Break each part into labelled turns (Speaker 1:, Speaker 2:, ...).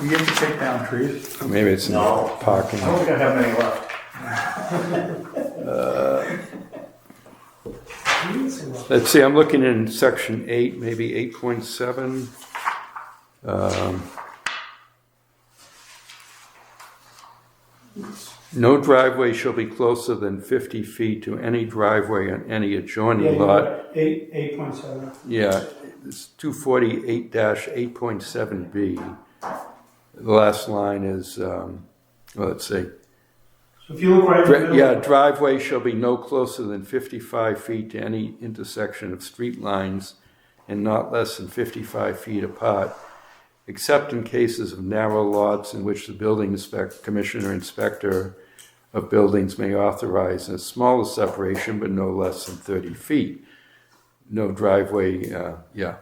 Speaker 1: We get to take down trees.
Speaker 2: Maybe it's in the
Speaker 3: No.
Speaker 2: parking.
Speaker 3: I don't think I have any left.
Speaker 2: Let's see, I'm looking in section eight, maybe eight point seven. Um, No driveway shall be closer than fifty feet to any driveway on any
Speaker 4: Yeah,
Speaker 2: adjoining
Speaker 4: you're
Speaker 2: lot.
Speaker 4: right. Eight, eight point seven.
Speaker 2: Yeah, it's two forty-eight eight point seven B. The last line is, um, well, let's see.
Speaker 4: So if you look right in the
Speaker 2: Dri-
Speaker 4: middle.
Speaker 2: Yeah, driveway shall be no closer than 55 feet to any intersection of street lines and not less than 55 feet apart, except in cases of narrow lots in which the building inspector, commissioner inspector of buildings may authorize a smaller separation, but no less than 30 feet. No driveway, uh, yeah.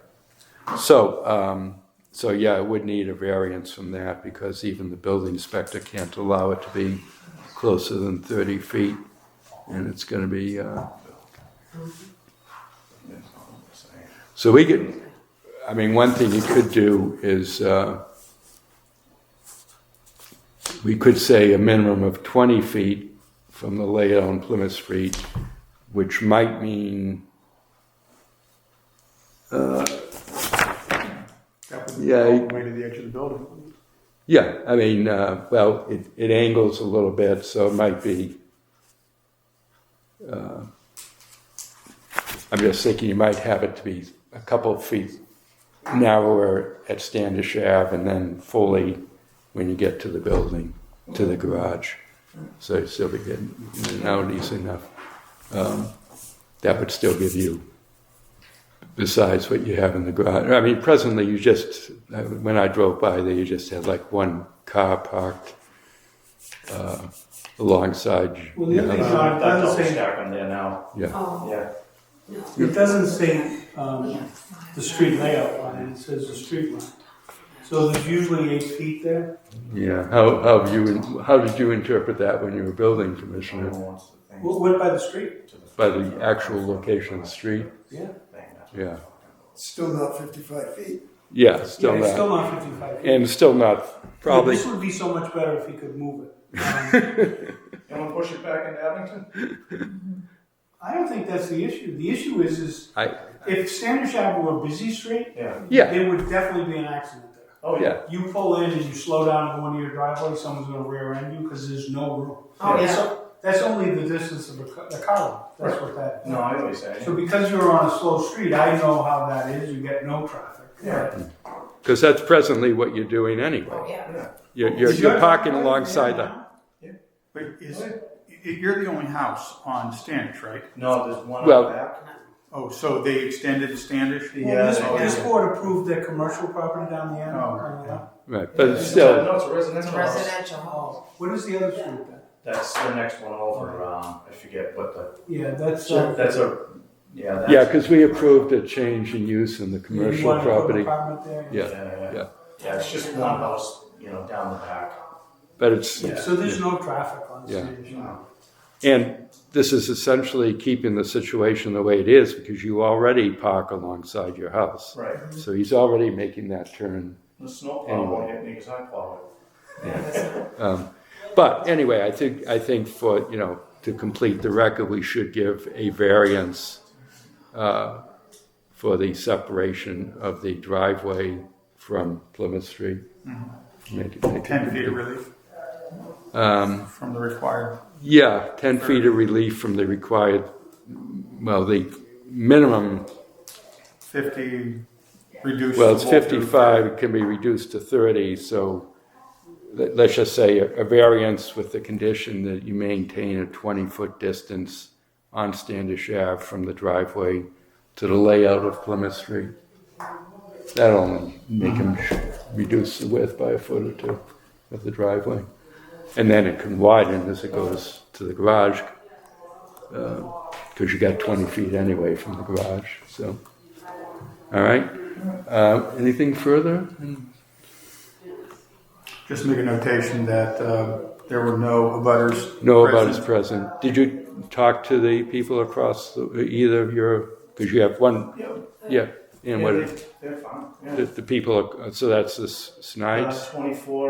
Speaker 2: So, um, so yeah, it would need a variance from that because even the building inspector can't allow it to be closer than 30 feet. And it's going to be, uh, so we could, I mean, one thing you could do is, uh, we could say a minimum of 20 feet from the layout on Plymouth Street, which might mean
Speaker 1: That would be
Speaker 2: Yeah,
Speaker 1: all
Speaker 2: you-
Speaker 1: the way to the edge of the building.
Speaker 2: Yeah, I mean, uh, well, it, it angles a little bit, so it might be. Uh, I'm just thinking you might have it to be a couple of feet narrower at Standish Ave and then fully when you get to the building, to the garage. So you'd still be getting in and out easy enough. Um, that would still give you besides what you have in the garage. I mean, presently, you just, uh, when I drove by there, you just had like one car parked uh, alongside.
Speaker 4: Well, the
Speaker 2: your
Speaker 4: other thing
Speaker 2: house.
Speaker 4: is-
Speaker 1: Uh,
Speaker 3: I've
Speaker 4: that's
Speaker 3: double
Speaker 4: the same-
Speaker 3: stack on there now,
Speaker 2: Yeah,
Speaker 5: Oh,
Speaker 3: yeah.
Speaker 4: It doesn't say, um,
Speaker 5: yeah.
Speaker 4: the street layout line, it says the street line. So there's usually eight feet there.
Speaker 2: yeah. How, how you, how did you interpret that when you were building
Speaker 3: Someone
Speaker 2: commissioner?
Speaker 3: wants the thing
Speaker 4: What, what by the street?
Speaker 3: to the-
Speaker 2: By the actual location of the street?
Speaker 4: Yeah.
Speaker 3: Thing, that's what
Speaker 2: Yeah,
Speaker 6: Still not fifty-five feet.
Speaker 2: yeah, still
Speaker 4: Yeah, it's
Speaker 2: not,
Speaker 4: still not fifty-five feet.
Speaker 2: and still not, probably,
Speaker 4: This would be so much better if he could move it. Um,
Speaker 3: You wanna push it back into Abington?
Speaker 4: I don't think that's the issue. The issue is, is
Speaker 2: I,
Speaker 4: if Standish Ave were a busy street,
Speaker 3: Yeah,
Speaker 2: yeah,
Speaker 4: there would definitely be an accident there.
Speaker 3: oh, yeah.
Speaker 2: yeah,
Speaker 4: You pull in and you slow down and go into your driveway, someone's gonna rear end you because there's no room.
Speaker 5: Oh,
Speaker 4: That's-
Speaker 5: yeah.
Speaker 4: That's only the distance of the co- the column, that's what that is.
Speaker 3: No, I always say,
Speaker 4: So because you're on a slow street, I know how that is, you get no traffic.
Speaker 3: Yeah.
Speaker 2: because that's presently what you're doing
Speaker 5: Oh,
Speaker 2: anyway.
Speaker 5: yeah.
Speaker 2: You're, you're-
Speaker 4: Is
Speaker 2: you're
Speaker 4: your
Speaker 2: parking
Speaker 4: driveway
Speaker 2: alongside
Speaker 4: there
Speaker 2: the,
Speaker 4: now?
Speaker 1: But is, y- you're the only house on Standish, right?
Speaker 3: no, there's one
Speaker 2: Well-
Speaker 3: on back.
Speaker 1: Oh, so they extended the Standish?
Speaker 3: Yeah,
Speaker 4: This,
Speaker 3: they
Speaker 1: Oh,
Speaker 3: did.
Speaker 4: this board approved their commercial property down the end.
Speaker 1: Oh,
Speaker 4: on the left.
Speaker 2: right, but
Speaker 3: It's a-
Speaker 2: still.
Speaker 3: No, it's a
Speaker 5: It's
Speaker 3: residential
Speaker 5: a
Speaker 3: house.
Speaker 5: residential home.
Speaker 4: Oh, what is the other street then?
Speaker 3: That's the next one over, um, I forget what the,
Speaker 4: Yeah, that's, uh.
Speaker 3: that's a, yeah, that's.
Speaker 2: Yeah, because we approved a change in use in the
Speaker 4: you
Speaker 2: commercial
Speaker 4: wanna put an
Speaker 2: property,
Speaker 4: apartment there?
Speaker 2: Yeah.
Speaker 3: Yeah, yeah, it's just one house, you know, down the back.
Speaker 2: but it's,
Speaker 3: Yeah.
Speaker 4: So there's no traffic on
Speaker 2: Yeah.
Speaker 4: Sanders Ave.
Speaker 2: and this is essentially keeping the situation the way it is because you already park alongside your house.
Speaker 3: Right.
Speaker 2: So he's already making that turn.
Speaker 3: The snowplow won't hit me because I plowed it.
Speaker 5: Yeah, that's-
Speaker 2: But anyway, I think, I think for, you know, to complete the record, we should give a variance uh, for the separation of the driveway from Plymouth Street. Make it- make it-
Speaker 1: Mm-hmm. Ten feet of relief
Speaker 2: Um,
Speaker 1: from the required.
Speaker 2: Yeah, 10 feet of relief from the required, well, the minimum,
Speaker 1: Fifty, reduced.
Speaker 2: well, it's
Speaker 1: the wall to-
Speaker 2: 55, it can be reduced to 30, so let- let's just say a a variance with the condition that you maintain a 20-foot distance on Standish Ave from the driveway to the layout of Plymouth Street. That'll only make him sh- reduce the width by a foot or two of the driveway. And then it can widen as it goes to the garage, because you got 20 feet anyway from the garage, so. All right, uh, anything further?
Speaker 1: Just make a notation that, uh, there were no abutters.
Speaker 2: No about
Speaker 1: present.
Speaker 2: his present. Did you talk to the people across, the- either of your, because you have one, yeah, and
Speaker 3: Yeah,
Speaker 2: what
Speaker 3: they- They're fine, yeah.
Speaker 2: the, the people, are- so that's this Snipes?
Speaker 3: Uh, Twenty-four